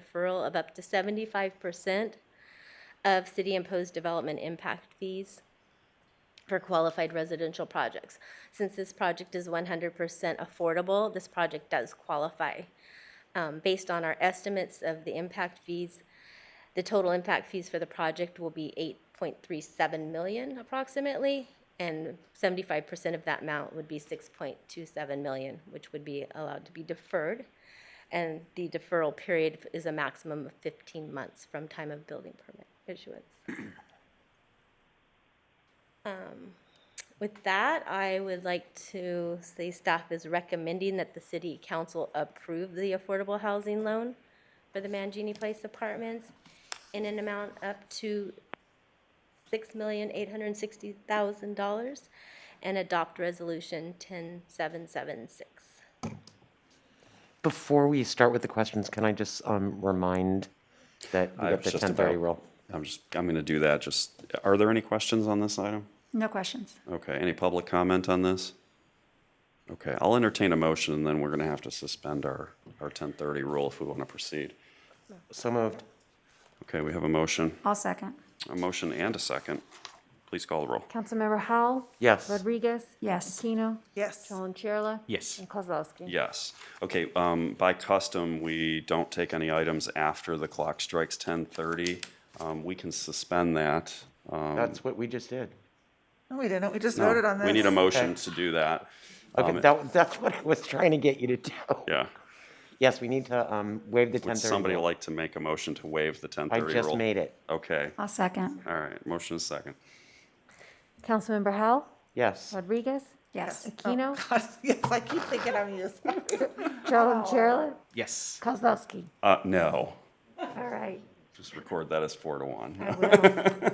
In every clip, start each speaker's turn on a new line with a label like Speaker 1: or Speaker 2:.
Speaker 1: deferral of up to seventy-five percent of city-imposed development impact fees for qualified residential projects. Since this project is one hundred percent affordable, this project does qualify. Um, based on our estimates of the impact fees, the total impact fees for the project will be eight point three seven million approximately, and seventy-five percent of that amount would be six point two seven million, which would be allowed to be deferred. And the deferral period is a maximum of fifteen months from time of building permit issuance. Um, With that, I would like to say staff is recommending that the city council approve the affordable housing loan for the Mangini Place Apartments in an amount up to six million eight hundred and sixty thousand dollars and adopt resolution ten seven seven six.
Speaker 2: Before we start with the questions, can I just um, remind that we
Speaker 3: I
Speaker 2: got
Speaker 3: was
Speaker 2: the
Speaker 3: just
Speaker 2: ten thirty
Speaker 3: about-
Speaker 2: rule?
Speaker 3: I'm just, I'm going to do that. Just, are there any questions on this item?
Speaker 4: No questions.
Speaker 3: Okay, any public comment on this? Okay, I'll entertain a motion and then we're going to have to suspend our, our 1030 rule if we want to proceed.
Speaker 2: So moved.
Speaker 3: Okay, we have a motion,
Speaker 4: I'll second.
Speaker 3: a motion and a second. Please call the roll.
Speaker 5: Councilmember Howell?
Speaker 2: Yes.
Speaker 5: Rodriguez?
Speaker 4: Yes.
Speaker 5: Keno?
Speaker 6: Yes.
Speaker 5: Chalum-Cherla?
Speaker 7: Yes.
Speaker 5: And Kozlowski?
Speaker 3: Yes. Okay, um, by custom, we don't take any items after the clock strikes 1030. Um, we can suspend that. Um,
Speaker 2: That's what we just did.
Speaker 6: No, we didn't. We just
Speaker 3: no,
Speaker 6: voted on this.
Speaker 3: We need a motion
Speaker 2: Okay.
Speaker 3: to do that.
Speaker 2: Okay,
Speaker 3: Um,
Speaker 2: that, that's what I was trying to get you to do.
Speaker 3: Yeah.
Speaker 2: Yes, we need to um, waive the ten
Speaker 3: Would
Speaker 2: thirty
Speaker 3: somebody
Speaker 2: rule.
Speaker 3: like to make a motion to waive the
Speaker 2: I
Speaker 3: 1030 rule?
Speaker 2: just made it.
Speaker 3: Okay,
Speaker 4: I'll second.
Speaker 3: all right, motion is second.
Speaker 5: Councilmember Howell?
Speaker 2: Yes.
Speaker 5: Rodriguez?
Speaker 4: Yes.
Speaker 5: Aquino?
Speaker 6: God, yes, I keep thinking I'm you.
Speaker 5: Oh. Chalum-Cherla?
Speaker 7: Yes.
Speaker 5: Kozlowski?
Speaker 3: Uh, no,
Speaker 5: All right.
Speaker 3: just record that as four to one,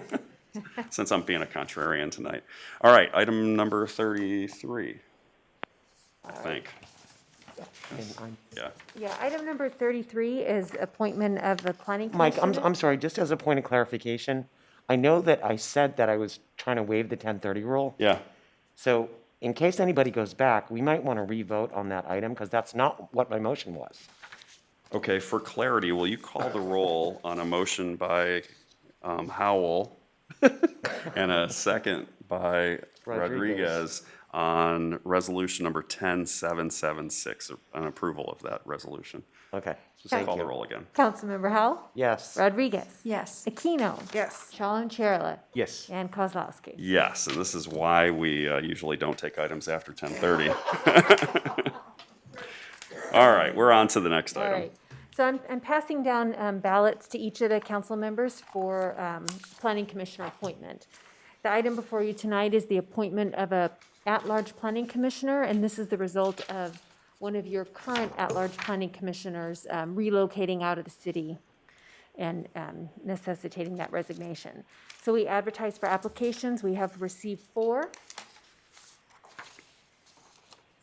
Speaker 3: since I'm being a contrarian tonight. All right, item number 33, I think,
Speaker 2: And I'm-
Speaker 3: yeah.
Speaker 5: Yeah, item number 33 is appointment of the planning
Speaker 2: Mike, I'm,
Speaker 5: commission.
Speaker 2: I'm sorry, just as a point of clarification, I know that I said that I was trying to waive the ten thirty rule.
Speaker 3: Yeah,
Speaker 2: So in case anybody goes back, we might want to re-vote on that item because that's not what my motion was.
Speaker 3: okay, for clarity, will you call the roll on a motion by um, Howell and a second by
Speaker 2: Rodriguez.
Speaker 3: Rodriguez on resolution number 10776, an approval of that resolution?
Speaker 2: Okay.
Speaker 3: Just
Speaker 2: thank
Speaker 3: call the
Speaker 2: you.
Speaker 3: roll again.
Speaker 5: Councilmember Howell?
Speaker 2: Yes.
Speaker 5: Rodriguez?
Speaker 4: Yes.
Speaker 5: Aquino?
Speaker 6: Yes.
Speaker 5: Chalum-Cherla?
Speaker 7: Yes.
Speaker 5: And Kozlowski?
Speaker 3: Yes, and this is why we uh, usually don't take items after 10:30. All right, we're on to the next
Speaker 5: All
Speaker 3: item.
Speaker 5: right. So I'm, I'm passing down um, ballots to each of the council members for um, planning commissioner appointment. The item before you tonight is the appointment of a at-large planning commissioner, and this is the result of one of your current at-large planning commissioners um, relocating out of the city and um, necessitating that resignation. So we advertised for applications. We have received four.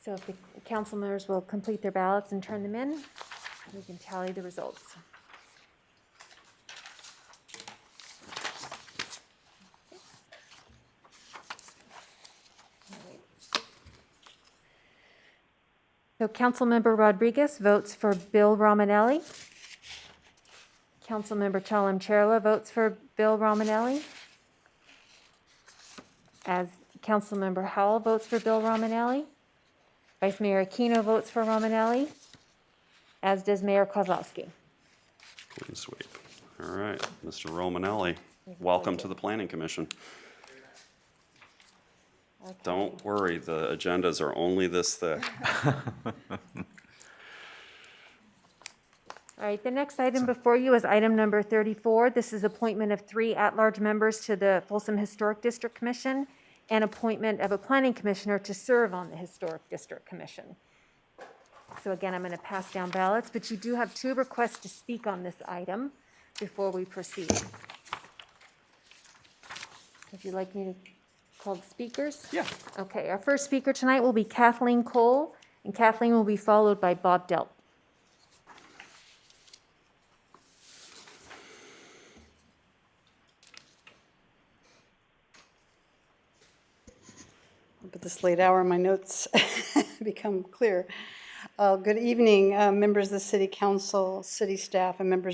Speaker 5: So if the council members will complete their ballots and turn them in, we can tally the results. So Councilmember Rodriguez votes for Bill Romanelli. Councilmember Chalem Chella votes for Bill Romanelli. As Councilmember Howell votes for Bill Romanelli. Vice Mayor Aquino votes for Romanelli, as does Mayor Kozlowski.
Speaker 3: Clean sweep. All right, Mr. Romanelli, welcome to the Planning Commission. Don't worry, the agendas are only this thick.
Speaker 5: All right, the next item before you is item number 34. This is appointment of three at-large members to the Folsom Historic District Commission and appointment of a planning commissioner to serve on the Historic District Commission. So again, I'm going to pass down ballots, but you do have two requests to speak on this item before we proceed. If you'd like me to call the speakers?
Speaker 3: Yeah.
Speaker 5: Okay, our first speaker tonight will be Kathleen Cole, and Kathleen will be followed by Bob Delp.
Speaker 8: Up at this late hour, my notes become clear. Uh, Good evening, uh, members of the city council, city staff, and members